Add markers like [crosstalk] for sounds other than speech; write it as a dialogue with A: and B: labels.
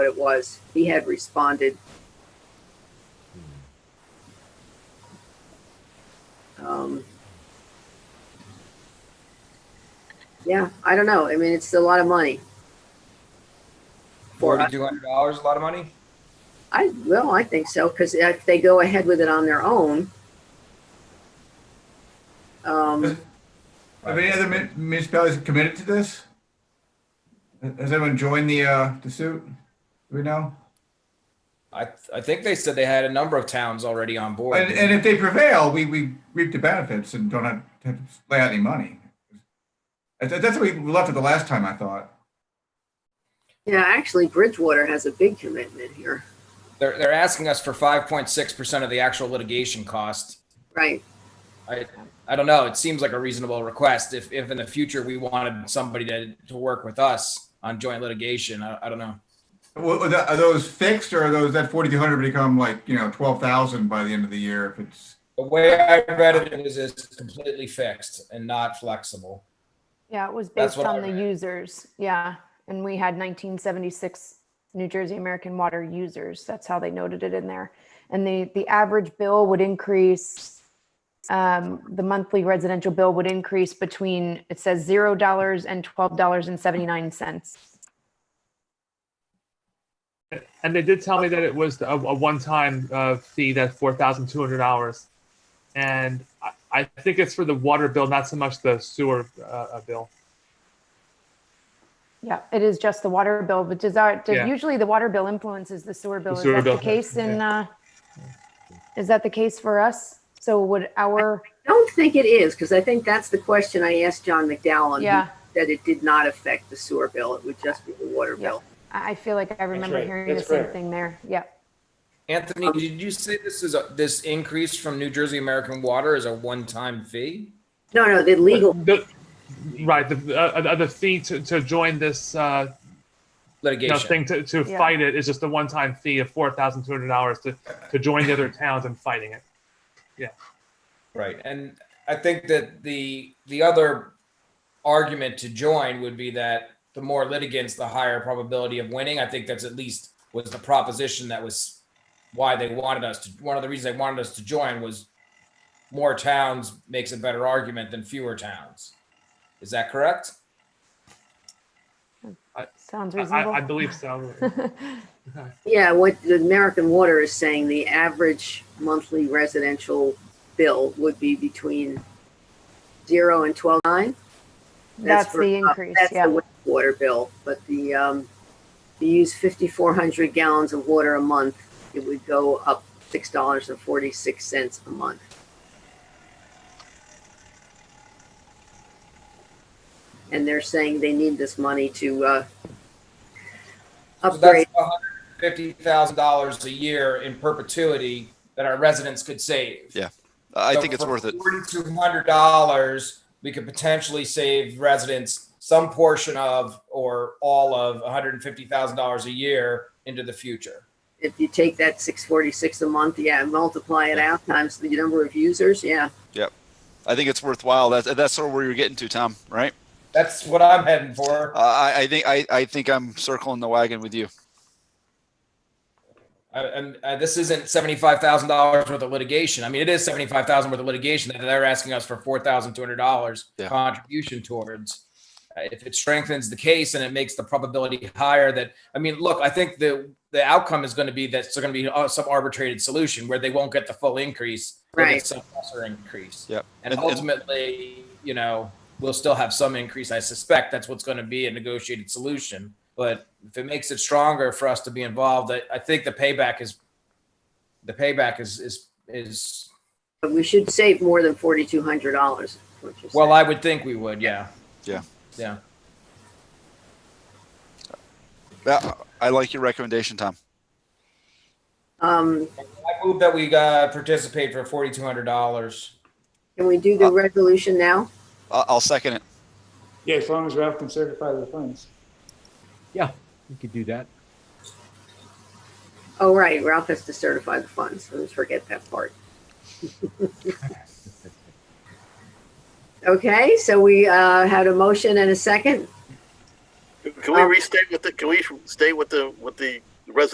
A: what it was. He had responded. Um, yeah, I don't know. I mean, it's a lot of money. For us.
B: Forty-two hundred dollars, a lot of money?
A: I well, I think so because if they go ahead with it on their own, um,
C: Have any other mun- municipalities committed to this? Has anyone joined the, uh, the suit? Do we know?
B: I, I think they said they had a number of towns already on board.
C: And, and if they prevail, we, we reap the benefits and don't have have to lay out any money. That's, that's what we left it the last time, I thought.
A: yeah, actually, Bridgewater has a big commitment here,
B: They're, they're asking us for five point six percent of the actual litigation cost.
A: right?
B: I, I don't know. It seems like a reasonable request. If, if in the future we wanted somebody to, to work with us on joint litigation, I, I don't know.
C: Wha- Are tha- are those fixed or are those, that 4,200 become like, you know, 12,000 by the end of the year if it's,
B: The way I read it is it's completely fixed and not flexible.
D: Yeah, it was
B: That's
D: based
B: what I
D: on the
B: read.
D: users. Yeah. And we had 1976 New Jersey American Water users. That's how they noted it in there. And the, the average bill would increase, um, the monthly residential bill would increase between, it says $0 and $12.79.
E: And they did tell me that it was a, a one-time uh, fee, that four thousand two hundred dollars, and I, I think it's for the water bill, not so much the sewer uh, uh, bill.
D: Yeah, it is just the water bill, which is our,
E: Yeah.
D: usually the water bill influences the sewer bill. Is
E: sewer
D: that the
E: bill,
D: case in, uh, is that the case for us? So would our,
A: Don't think it is because I think that's the question I asked John McDowell. and he
D: yeah,
A: said it did not affect the sewer bill; it would just be the water
D: Yeah.
A: bill.
D: I I feel like I remember
F: right.
D: hearing the
F: That's
D: same
F: right.
D: thing there. Yeah.
B: Anthony, did you say this is a, this increase from New Jersey American Water is a one-time fee?
A: No, no, the legal
E: The- right, the uh, uh, the fee to, to join this uh, you know,
B: Litigation.
E: thing to, to
D: Yeah.
E: fight it is just a one-time fee of four thousand two hundred dollars to to join the other towns in fighting it.
B: Right. And I think that the, the other argument to join would be that the more litigants, the higher probability of winning. I think that's at least was the proposition that was why they wanted us to, one of the reasons they wanted us to join was more towns makes a better argument than fewer towns. Is that correct?
D: Sounds
E: I, I, I
D: reasonable.
E: believe so.
D: [laughs]
A: Yeah, what the American Water is saying, the average monthly residential bill would be between zero and twelve nine.
D: That's
A: for- uh,
D: the increase,
A: That's
D: yeah.
A: the water bill, but the um, if you use fifty four hundred gallons of water a month, it would go up six dollars and forty six cents a month. And they're saying they need this money to uh,
B: So that's
A: upgrade.
B: $150,000 a year in perpetuity that our residents could save.
F: I
B: So
F: think it's
B: for
F: worth it.
B: Forty-two hundred dollars, we could potentially save residents some portion of or all of one hundred and fifty thousand dollars a year into the future.
A: if you take that six forty six a month, yeah, and multiply it out times the number of users, yeah.
F: I think it's worthwhile. That's that's sort of where you're getting to, Tom. Right?
B: That's what I'm heading for.
F: Uh, I I think I I think I'm circling the wagon with you.
B: I- And uh, this isn't seventy-five thousand dollars worth of litigation. I mean, it is seventy-five thousand worth of litigation that they're asking us for four thousand two hundred dollars
F: Yeah.
B: contribution towards. Uh, If it strengthens the case and it makes the probability higher that, I mean, look, I think the the outcome is going to be that it's going to be uh, some arbitrated solution where they won't get the full increase, they'll get
A: Right.
B: Some lesser increase.
F: Yep.
B: And,
F: And- and-
B: ultimately, you know, we'll still have some increase. I suspect that's what's going to be a negotiated solution. But if it makes it stronger for us to be involved, I, I think the payback is the payback is is is
A: But we should save more than forty two hundred dollars.
B: well, I would think we would, yeah.
F: Yeah.
B: Yeah.
F: Yeah, Uh, I like your recommendation, Tom.
A: um,
B: I move that we uh, participate for forty two hundred dollars.
A: can we do the resolution now?
F: I'll, Uh, I'll second it.
G: Yeah, as long as Ralph can certify the funds.
H: We could do that.
A: Oh, right, Ralph has to certify the funds. Let's forget that part. Okay, so we uh, had a motion and a second.
I: Can we
A: Um,
I: restate with the, can we stay with the, with the